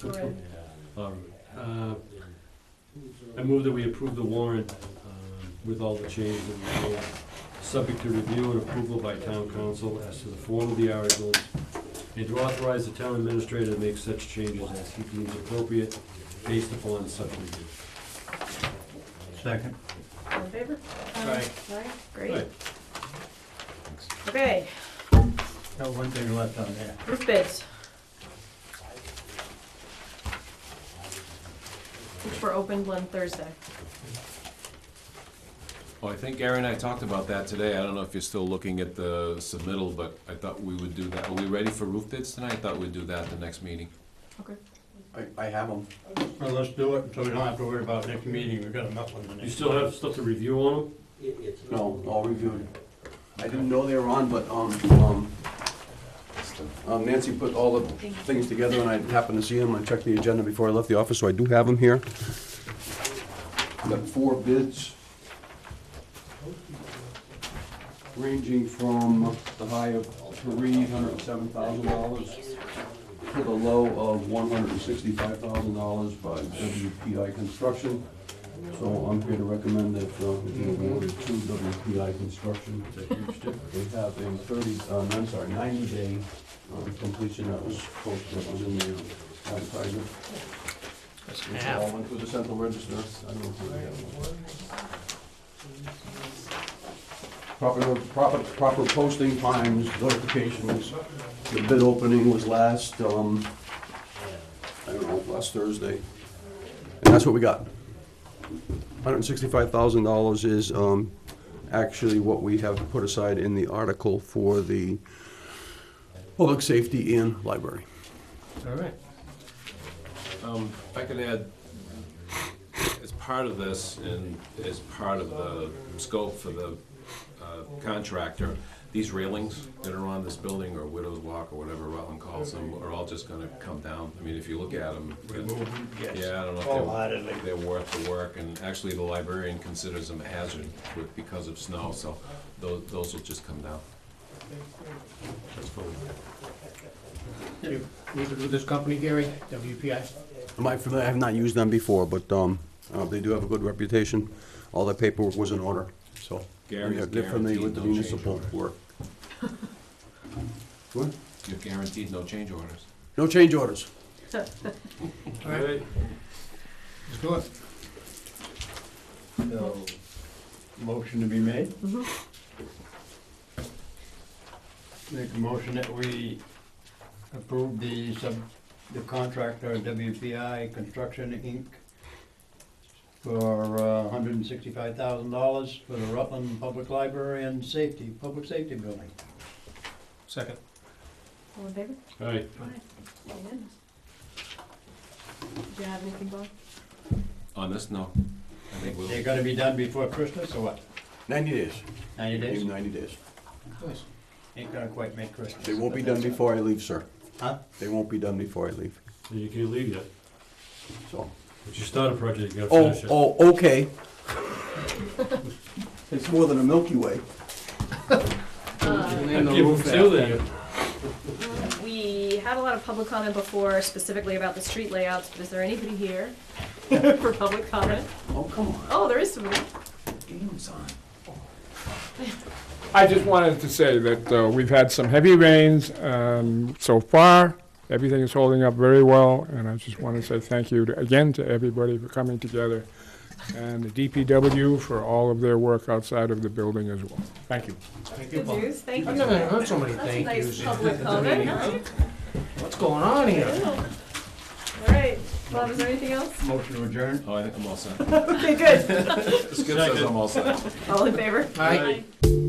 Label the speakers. Speaker 1: Correct.
Speaker 2: All right. Uh, I move that we approve the warrant um, with all the changes that we made, subject to review and approval by town council as to the form of the articles, and to authorize the town administrator to make such changes as he deems appropriate based upon such review.
Speaker 3: Second.
Speaker 1: All in favor?
Speaker 2: Aye.
Speaker 1: Aye,
Speaker 2: Right.
Speaker 1: great. Okay,
Speaker 3: Now, one thing left on there.
Speaker 1: roof bids. Which were opened on Thursday.
Speaker 4: Well, I think Gary and I talked about that today. I don't know if you're still looking at the submittal, but I thought we would do that. Are we ready for roof bids tonight? I thought we'd do that the next meeting.
Speaker 1: Okay.
Speaker 5: I, I have them.
Speaker 3: Well, let's do it, so we don't have to worry about next meeting, we've got enough on the next.
Speaker 2: You still have stuff to review on them?
Speaker 5: No, all reviewed. I didn't know they were on, but, um, um, um, Nancy put all the things together and I happened to see them. I checked the agenda before I left the office, so I do have them here. Got four bids. Ranging from the high of three hundred and seven thousand dollars to the low of one hundred and sixty-five thousand dollars by WPI Construction. So I'm here to recommend that uh, we award to WPI Construction. They have a thirty, um, I'm sorry, ninety-day um, completion that was posted, that was in the advertisement. It's all went through the central register. I don't know if we have one. Proper, proper, proper posting times, notifications. The bid opening was last, um, I don't know, last Thursday. And that's what we got. Hundred and sixty-five thousand dollars is, um, actually what we have put aside in the article for the public safety and library.
Speaker 3: All right.
Speaker 4: Um, if I could add, as part of this and as part of the scope for the uh, contractor, these railings that are on this building or Widow's Walk or whatever Rutland calls them are all just gonna come down. I mean, if you look at them.
Speaker 3: Yes,
Speaker 4: Yeah, I don't know if they're.
Speaker 3: wholeheartedly.
Speaker 4: they're worth the work, and actually the librarian considers them a hazard with- because of snow, so those, those will just come down. That's fine.
Speaker 6: You need to do this company, Gary, WPI?
Speaker 5: Am I familiar, I have not used them before, but, um, uh, they do have a good reputation. All the paperwork was in order, so.
Speaker 4: Gary's
Speaker 5: They're familiar with the
Speaker 4: guaranteed no change
Speaker 5: municipal
Speaker 4: order.
Speaker 5: work. What?
Speaker 4: You're guaranteed no change orders.
Speaker 5: No change orders.
Speaker 6: All right,
Speaker 2: Right.
Speaker 6: let's do it.
Speaker 3: So, motion to be made?
Speaker 1: Mhm.
Speaker 3: Make a motion that we approve the sub, the contractor WPI Construction Inc. for uh hundred and sixty-five thousand dollars for the Rutland Public Library and Safety, Public Safety Building.
Speaker 6: Second.
Speaker 1: All in favor?
Speaker 2: All right.
Speaker 1: Aye. Unanimous. Do you have anything, Bob?
Speaker 4: On this, no. I think we'll,
Speaker 3: They're gonna be done before Christmas or what?
Speaker 5: Ninety days.
Speaker 3: Ninety
Speaker 5: Give
Speaker 3: days?
Speaker 5: them Ninety days.
Speaker 6: Nice.
Speaker 3: Ain't gonna quite make Christmas.
Speaker 5: They won't be
Speaker 3: but
Speaker 5: done
Speaker 3: that's-
Speaker 5: before I leave, sir.
Speaker 3: Huh?
Speaker 5: They won't be done before I leave,
Speaker 2: And you can't leave yet.
Speaker 5: so.
Speaker 2: If you start a project, you gotta
Speaker 5: Oh,
Speaker 2: finish it.
Speaker 5: oh, okay. It's more than a Milky Way.
Speaker 2: I'd give them till then.
Speaker 1: We had a lot of public comment before specifically about the street layouts, but is there anybody here for public comment?
Speaker 5: Oh, come on.
Speaker 1: Oh, there is somebody.
Speaker 5: Game's on.
Speaker 7: I just wanted to say that uh, we've had some heavy rains um, so far. Everything is holding up very well, and I just want to say thank you to- again to everybody for coming together, and the DPW for all of their work outside of the building as well. Thank you.
Speaker 6: Thank you,
Speaker 1: Good
Speaker 6: Paul.
Speaker 1: news, thank
Speaker 6: I've never
Speaker 1: you.
Speaker 6: heard so many
Speaker 1: That's a
Speaker 6: thank
Speaker 1: nice
Speaker 6: yous.
Speaker 1: public comment. huh?
Speaker 6: What's going on here?
Speaker 1: All right, Bob, is there anything else?
Speaker 3: Motion to adjourn?
Speaker 4: oh, I think I'm all set.
Speaker 1: Okay, good.
Speaker 4: Skip says I'm all set.
Speaker 1: All in favor?
Speaker 6: Aye.
Speaker 1: Aye.